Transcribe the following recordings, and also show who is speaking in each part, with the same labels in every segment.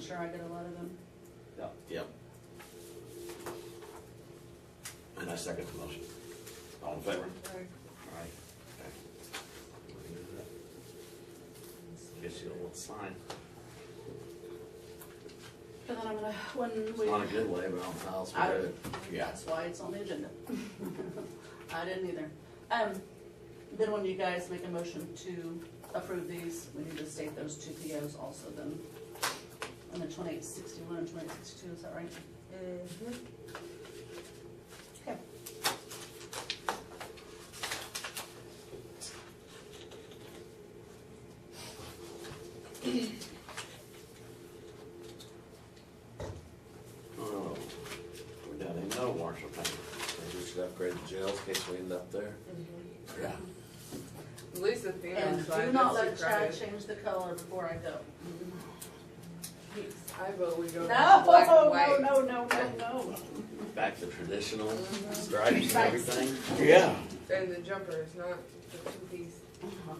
Speaker 1: sure I get a lot of them.
Speaker 2: Yeah.
Speaker 3: Yep. And I second the motion. All in favor?
Speaker 1: Or-
Speaker 3: Aye. Okay. Guess you don't want to sign.
Speaker 1: But then I'm gonna, when
Speaker 3: It's
Speaker 1: we.
Speaker 3: not a good way, but I'm file
Speaker 1: I
Speaker 3: for it. Yeah.
Speaker 1: That's why it's on the agenda. I didn't either. Um, then when you guys make a motion to approve these, we need to state those two POs also then. And the twenty-eight sixty-one and twenty-eight sixty-two, is that right?
Speaker 4: Mm-hmm.
Speaker 1: Okay.
Speaker 3: Oh, we don't even know Marshall County.
Speaker 5: Maybe we should upgrade the jails in case we end up there.
Speaker 3: Yeah.
Speaker 4: Lisa thinks
Speaker 1: And
Speaker 4: I've
Speaker 1: do
Speaker 4: been
Speaker 1: not let Chad
Speaker 4: surprised.
Speaker 1: change the color before I go.
Speaker 4: I vote we
Speaker 1: No,
Speaker 4: go to black and
Speaker 1: no,
Speaker 4: white.
Speaker 1: no, no, no, no.
Speaker 3: Back to traditional stripes and
Speaker 1: Stripes.
Speaker 3: everything. Oh, Yeah.
Speaker 4: And the jumper is not the two piece.
Speaker 1: Oh,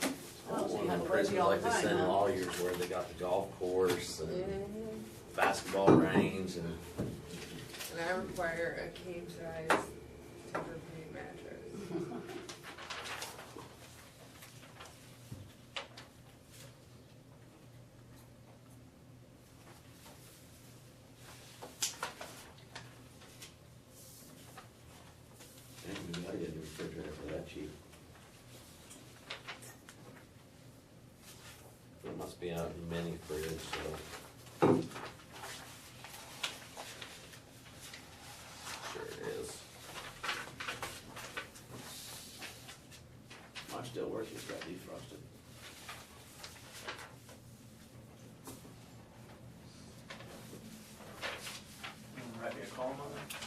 Speaker 1: so
Speaker 5: One
Speaker 1: you have
Speaker 5: of the
Speaker 1: to wait
Speaker 5: prisons
Speaker 1: all the
Speaker 5: like they
Speaker 1: time,
Speaker 5: send
Speaker 1: huh?
Speaker 5: lawyers where they got the golf course and
Speaker 1: Mm-hmm.
Speaker 5: basketball range and
Speaker 4: And I require a king size temper pedic mattress.
Speaker 3: And we gotta get a refrigerator for that cheap. There must be a mini fridge, so. Sure it is. Mine still works, it's got defrosted.
Speaker 6: Write me a call on it.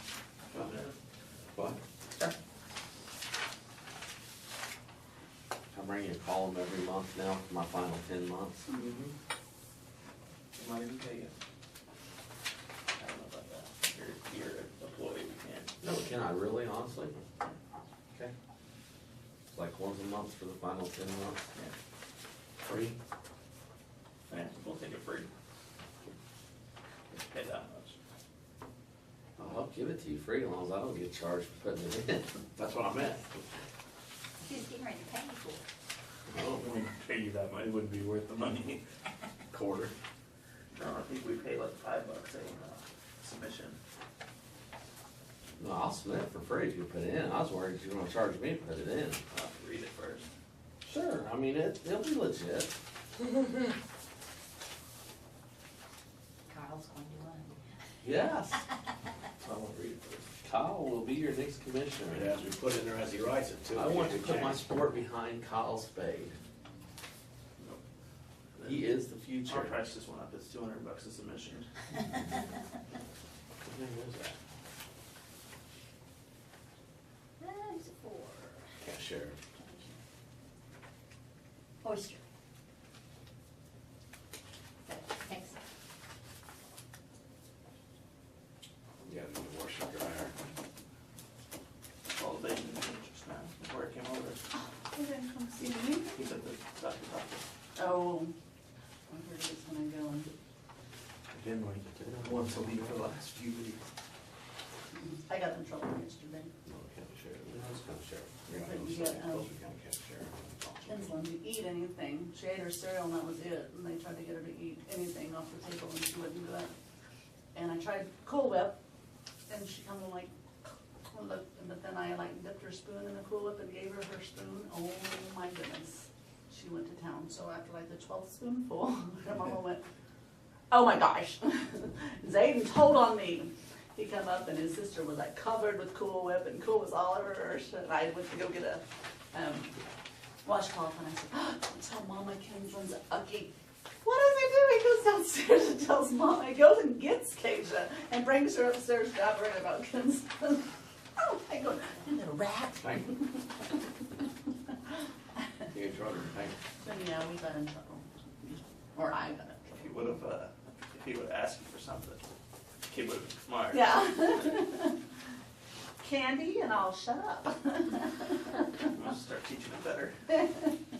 Speaker 3: Oh, What? I bring you a column every month now for my final ten months.
Speaker 6: Mm-hmm. Might even pay you. I don't know about that. You're, you're an employee, we can't.
Speaker 3: No, can I really, honestly? Okay. It's like once a month for the final ten months. Free?
Speaker 6: Yeah, we'll take it free. Just Pay that much.
Speaker 3: Oh, I'll help give it to you free as long as I don't get charged for putting it in. That's what I meant.
Speaker 7: She's getting ready to pay you for it.
Speaker 3: Oh,
Speaker 6: We wouldn't pay you that much, it wouldn't be worth the money.
Speaker 3: quarter.
Speaker 6: No, I think we pay like five bucks a uh, submission.
Speaker 3: No, I'll submit it for free if you put it in. I was worried you were gonna charge me to put it in.
Speaker 6: I'll have to read it first.
Speaker 3: Sure, I mean, it, it'll be legit.
Speaker 7: Kyle's going to run.
Speaker 3: Yes.
Speaker 6: I won't read it first.
Speaker 3: Kyle will be your next commissioner.
Speaker 2: It has to be put in there as he writes it too.
Speaker 3: I want to put my
Speaker 2: Change.
Speaker 3: sport behind Kyle Spade. He is the future.
Speaker 6: Our price just went up, it's two hundred bucks a submission.
Speaker 3: What name was that?
Speaker 7: Ah, Who's it for?
Speaker 3: Cashier.
Speaker 7: Oyster. Thanks.
Speaker 3: Yeah, the washer dryer.
Speaker 6: All day, just now, before I came over.
Speaker 1: They didn't come see me.
Speaker 6: He's at the doctor, doctor.
Speaker 1: Oh, I heard it was when I go and,
Speaker 6: Been like once a week for the last few weeks.
Speaker 1: I got in trouble yesterday.
Speaker 3: No, cashier. No, it's cashier.
Speaker 1: But you
Speaker 3: Yeah,
Speaker 1: got,
Speaker 3: I'm
Speaker 1: um,
Speaker 3: sorry. Cashier.
Speaker 1: Kinsler didn't eat anything. She ate her cereal and that was it. And they tried to get her to eat anything off the table and she wouldn't do it. And I tried Cool Whip and she kind of like, Cool Whip, but then I like dipped her spoon in the Cool Whip and gave her her spoon. Oh my goodness. She went to town. So after like the twelfth spoonful, her mama went, oh my gosh. Zayden told on me. He come up and his sister was like covered with Cool Whip and Cool was all over her. And I went to go get a, um, washcloth and I said, oh, don't tell Mama Kinslin's ugly. What does he do? He goes downstairs and tells Mama. He goes and gets Keisha and brings her upstairs jabbering about Kinslin. oh my god, you little rat.
Speaker 3: Thank you. You in trouble, thank you.
Speaker 1: So yeah, we got in trouble. Or I got in
Speaker 6: If he would have, uh, if he would have asked you for something, the kid would have been smart.
Speaker 1: trouble. Yeah. Candy and I'll shut up.
Speaker 6: I'll start teaching him better.
Speaker 1: That's